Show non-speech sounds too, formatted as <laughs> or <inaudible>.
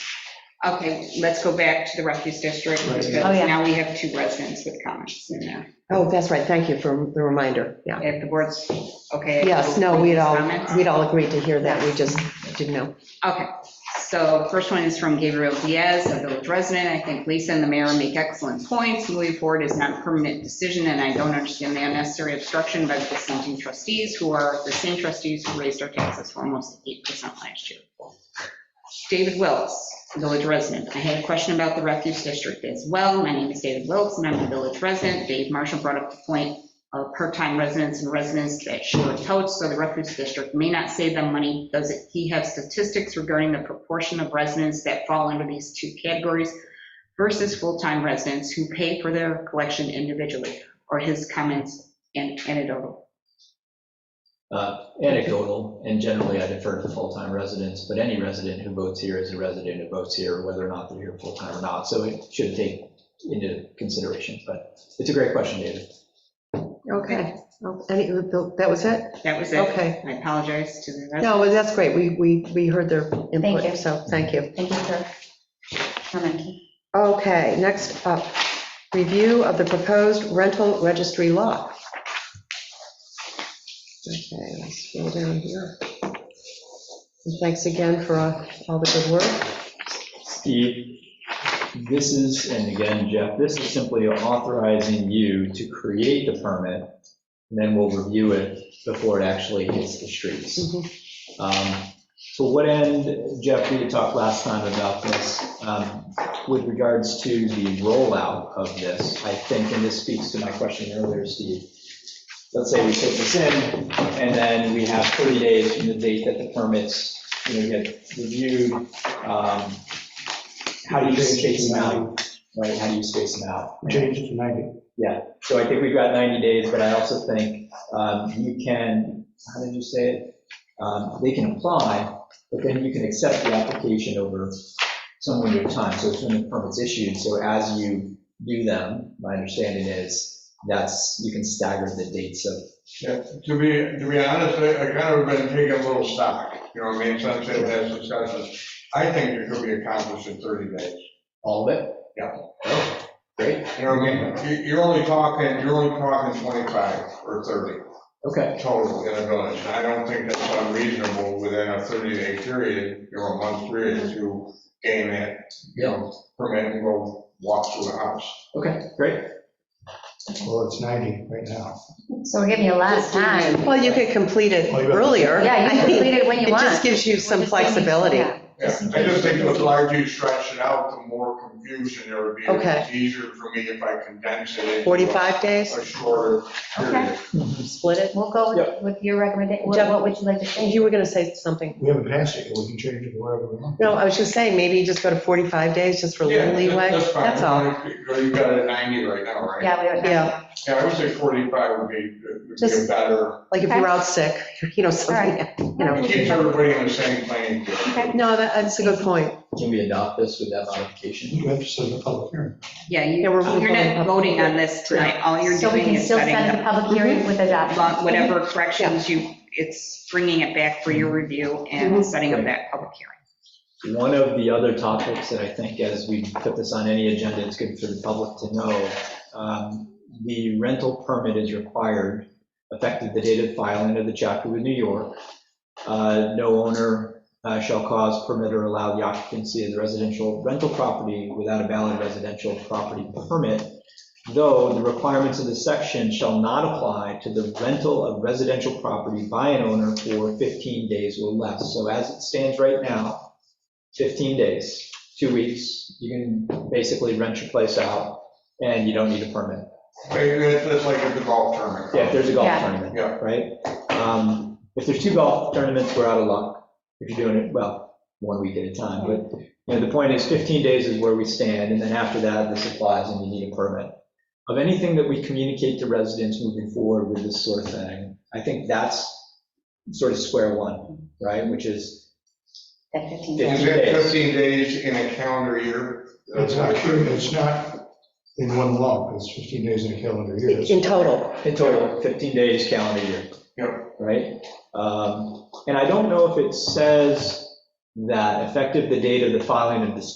Okay, let's go back to the refuse district, Right. because Oh, yeah. now we have two residents with comments in there. Oh, that's right, thank you for the reminder, yeah. If the board's okay. Yes, no, we'd all, Comments? we'd all agreed to hear that, we just didn't know. Okay, so first one is from Gabriel Diaz, a village resident. I think Lisa and the mayor make excellent points. Moving forward is not a permanent decision, and I don't understand the unnecessary obstruction by the dissenting trustees, who are the same trustees who raised our taxes for almost 8% last year. David Wilks, village resident. I had a question about the refuge district as well. My name is David Wilks, and I'm a village resident. Dave Marshall brought up the point of part-time residents and residents that share totes, so the refuge district may not save them money. Does it- he have statistics regarding the proportion of residents that fall under these two categories versus full-time residents who pay for their collection individually? Or his comments and anecdotal? Uh, Anecdotal, and generally I defer to full-time residents, but any resident who votes here is a resident who votes here, whether or not they're here full-time or not. So it should take into consideration, but it's a great question, David. Okay, Well, any, that was it? That was it. Okay. I apologize to the residents. No, well, that's great, we, we, we heard their Thank input, you. so, thank you. Thank you for commenting. Okay, next up, review of the proposed rental registry law. Okay, let's scroll down here. And Thanks again for uh, all the good work. Steve, this is, and again, Jeff, this is simply authorizing you to create the permit, and then we'll review it before it actually hits the streets. Um, To what end, Jeff, we had talked last time about this, um, with regards to the rollout of this, I think, and this speaks to my question earlier, Steve. Let's say we take this in, and then we have 30 days from the date that the permits, you know, get reviewed. um, How do you space them out? Right, how do you space them out? Change it to 90. So I think we've got 90 days, but I also think um, you can, how did you say it? Um, They can apply, but then you can accept the application over some window of time. So it's when the permit's issued, so as you do them, my understanding is that's, you can stagger the dates of, Yeah, To be, to be honest, I I kind of been taking a little stock, you know what I mean, since it has discussion. I think it could be accomplished in 30 days. all of it? Yeah. Oh, Great, You know what I mean? You- You're only talking, you're only talking 25 or 30 okay, total in a village. And I don't think that's unreasonable within a 30-day period, you know, a month period to gain that, you know, permit and go walk through the house. okay, great. Well, it's 90 right now. So we're giving you a last time. Well, you could complete Oh, it earlier. Yeah, you I <laughs> can mean, complete it when you It want. just gives you some We're just giving you- flexibility. yeah. Yeah, I just think the larger you stretch it out, the more confusion there would be. Okay. It's easier for me if I condense it. into a- 45 days? A shorter period. Split it? We'll go with- Yep. with your recommendation. What Jeff- what would you like to say? You were going to say something. We haven't passed it, yet. we can change it wherever we want. No, I was just saying, maybe you just go to 45 days, just for a Yeah, little leeway. That's fine. That's all. You you got it at 90 right now, right? Yeah, we don't Yeah. have. Yeah, I would say 45 would be, would be a Just- better, Like if Okay. you're out sick, <laughs> you know, something, you know. it keeps everybody on the same plane. Okay. No, that- that's a good point. Can we adopt this with that modification? You have to set a public hearing. Yeah, you- Yeah, you're we're- we're going not up. voting on this tonight. All you're So we doing can is still setting send the up public hearing with adoption. about whatever corrections you, it's bringing it back for your review and Mm-hmm. Mhm. setting up that public hearing. One of the other topics that I think as we put this on any agenda, it's good for the public to know, um, the rental permit is required effective the date of filing of the chapter with New York. Uh, No owner uh, shall cause, permit, or allow the occupancy of the residential rental property without a valid residential property permit, though the requirements of this section shall not apply to the rental of residential property by an owner for 15 days or less. So as it stands right now, 15 days, two weeks, you can basically rent your place out, and you don't need a permit. It's it's like a golf tournament. Yeah, if there's a golf Yeah. tournament, Yeah. right? Um, If there's two golf tournaments, we're out of luck, if you're doing it, well, one week at a time, but, you know, the point is 15 days is where we stand, and then after that, this applies and you need a permit. Of anything that we communicate to residents moving forward with this sort of thing, I think that's sort of square one, right? Which is, That 15 Yeah. Is days. that 15 days in a calendar year? It's not, it's not in one lump, it's 15 days in a calendar year. It's- In total. in total, 15 days calendar year. Yeah. right? Um, And I don't know if it says that effective the date of the filing of the